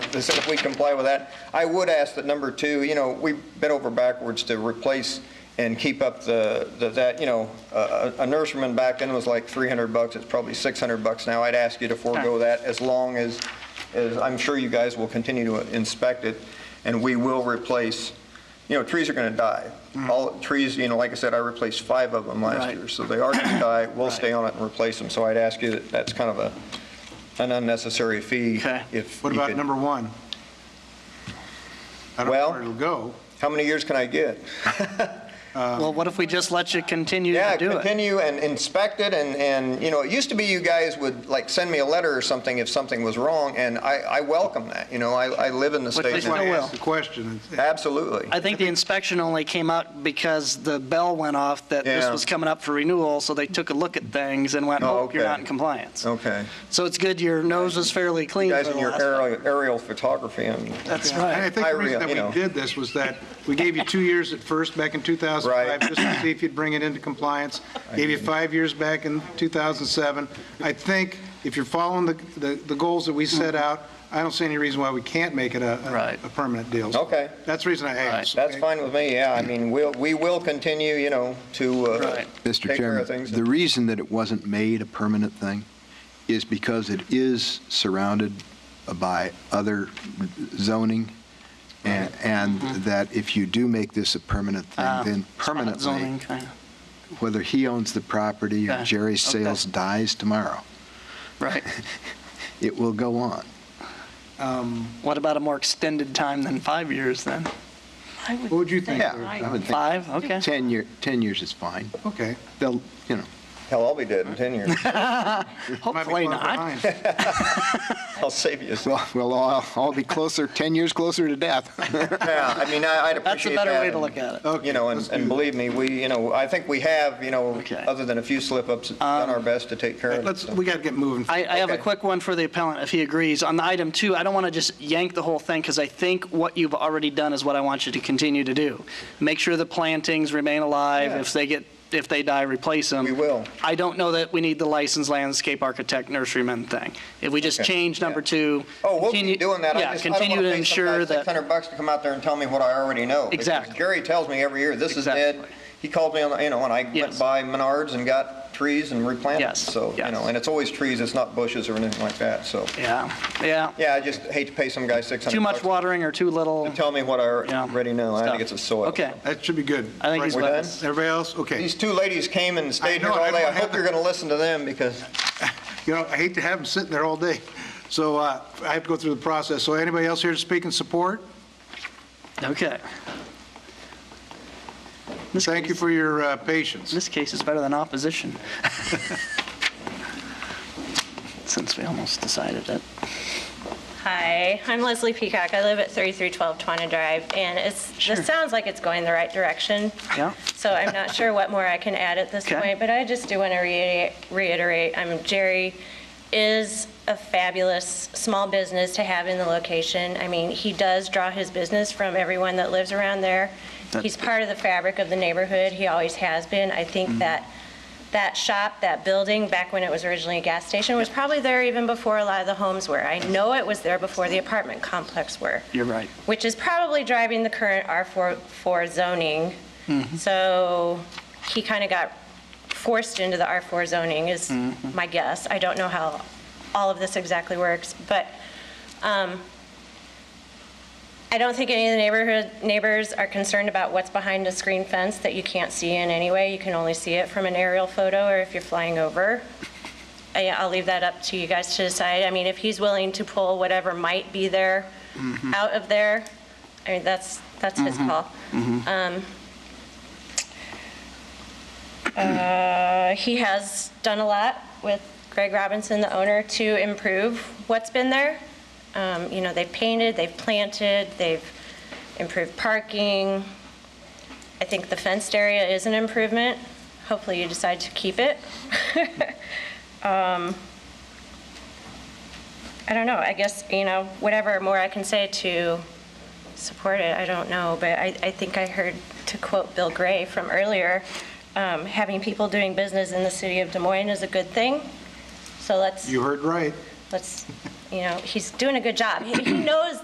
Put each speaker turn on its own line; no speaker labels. they said if we comply with that. I would ask that number two, you know, we bent over backwards to replace and keep up the, the- that, you know, a a- a nurseryman back then was like 300 bucks, it's probably 600 bucks now. I'd ask you to forego that as long as, as I'm sure you guys will continue to inspect it, and we will replace, you know, trees are going to die. All trees, you know, like I said, I replaced five of them last
Mm-hmm. Right.
year, so they are going to die. We'll
Right.
stay on it and replace them, so I'd ask you, that that's kind of a, an unnecessary fee.
Okay.
If
What
you
about
could-
number one? I don't know
Well-
where it'll go.
How many years can I get?
Well, what if we just let you continue
Yeah,
to do it?
continue and inspect it, and, and, you know, it used to be you guys would, like, send me a letter or something if something was wrong, and I, I welcome that, you know, I, I live in the
But
state.
there's
That's
now.
why I
no will.
asked the question.
Absolutely.
I think the inspection only came out because the bell went off that this
Yeah.
was coming up for renewal, so they took a look at things and went,
Oh,
oh, you're
okay.
not in compliance.
Okay.
So it's good your nose is fairly
You
clean
guys
for
in
the
your
last-
aerial, aerial photography, I mean,
That's
And I
right.
think
I
the reason
rea- you
that
know.
we did this was that we gave you two years at first, back in 2005,
Right.
just to see if you'd bring it into compliance. Gave you five years back in 2007. I think if you're following the, the the goals that we set out, I don't see any reason why we can't make it a-
Right.
a, a permanent deal.
Okay.
That's the reason I asked.
that's
okay?
fine with me, yeah, I mean, we'll, we will continue, you know, to, uh,
Right.
Take
Mr.
care of
Chairman,
things.
the reason that it wasn't made a permanent thing is because it is surrounded by other zoning, and, and that if you do make this a permanent
Mm-hmm. Ah,
thing, then
Zoning,
permanently,
kind of,
whether he owns the property or
Okay,
Jerry
okay.
Sales dies tomorrow,
right.
it will go on.
Um,
What about a more extended time than five years then?
What would you think? Lou?
I would think
Five, okay.
10 year, 10 years is fine.
Okay.
They'll, you know,
hell, I'll be dead in 10 years.
Might be
Hopefully
far
not.
behind.
I'll save you.
we'll, we'll all, all be closer, 10 years closer to death.
Yeah, I mean, I- I'd
That's a
appreciate that.
better way to
and-
look at it.
You know, and,
let's
and
do that.
believe me, we, you know, I think we have, you know,
Okay. Um,
other than a few slip-ups, done our best to take care of it.
Let's,
so.
we got to get moving.
I, I have a
Okay.
quick one for the appellant, if he agrees. On the item two, I don't want to just yank the whole thing, because I think what you've already done is what I want you to continue to do. Make sure the plantings remain alive.
Yeah.
If they get, if they die, replace them.
We will.
I don't know that we need the licensed landscape architect nurseryman thing. If we just
Okay,
change number
yeah.
two.
Oh, we'll
continue-
keep doing that. I
Yeah,
just, I don't
continue
want
to
to pay some guy
ensure that,
600 bucks to come out there and tell me what I already know. Because
Exactly.
Gary tells me every year, this is dead.
Exactly.
He called me on, the you know, and I
Yes.
went by Menards and got trees and replanted.
Yes,
So, you
yes.
know, and it's always trees, it's not bushes or anything like that, so.
yeah, yeah.
Yeah, I just hate to pay some guy 600 bucks.
Too much watering or too little.
To tell me what I
yeah,
already know. I
stuff.
think it's a soil.
Okay,
That should be good.
I think he's
We're
with
done?
us.
Everybody else? Okay.
These two ladies came and stayed
I
here
know,
all
I
day. I
don't have
hope you're
the-
going to listen to them because,
You know, I hate to have them sitting there all day. So uh, I have to go through the process. So anybody else here to speak in support?
okay. Ms.
Thank you
Case-
for your uh,
In
patience.
this case, it's better than opposition. Since we almost decided that.
Hi, I'm Leslie Peacock. I live at 3312 Twana Drive, and it's, this sounds like it's going the right direction.
Yeah.
So I'm not sure what more I can add at this
Okay.
point, but I just do want to reiterate, I'm, Jerry is a fabulous small business to have in the location. I mean, he does draw his business from everyone that lives around there.
That-
He's part of the fabric of the neighborhood. He always has been. I
Mm-hmm.
think that that shop, that building, back when it was originally a gas station, was probably there even before a lot of the homes were. I know it was there before the apartment complex were
You're right.
which is probably driving the current R4 zoning. So he kind of got forced into the R4 zoning is my guess. I don't know how all of this exactly works, but um, I don't think any of the neighborhood, neighbors are concerned about what's behind a screen fence that you can't see in anyway. You can only see it from an aerial photo or if you're flying over. I- I'll leave that up to you guys to decide. I mean, if he's willing to pull whatever might be there out of there, I mean, that's, that's his call. Um, uh, He has done a lot with Greg Robinson, the owner, to improve what's been there. Um, You know, they've painted, they've planted, they've improved parking. I think the fenced area is an improvement. Hopefully you decide to keep it. Um, I don't know, I guess, you know, whatever more I can say to support it, I don't know, but I, I think I heard, to quote Bill Gray from earlier, um, having people doing business in the city of Des Moines is a good thing, so let's,
You heard right.
let's, you know, he's doing a good job. He he knows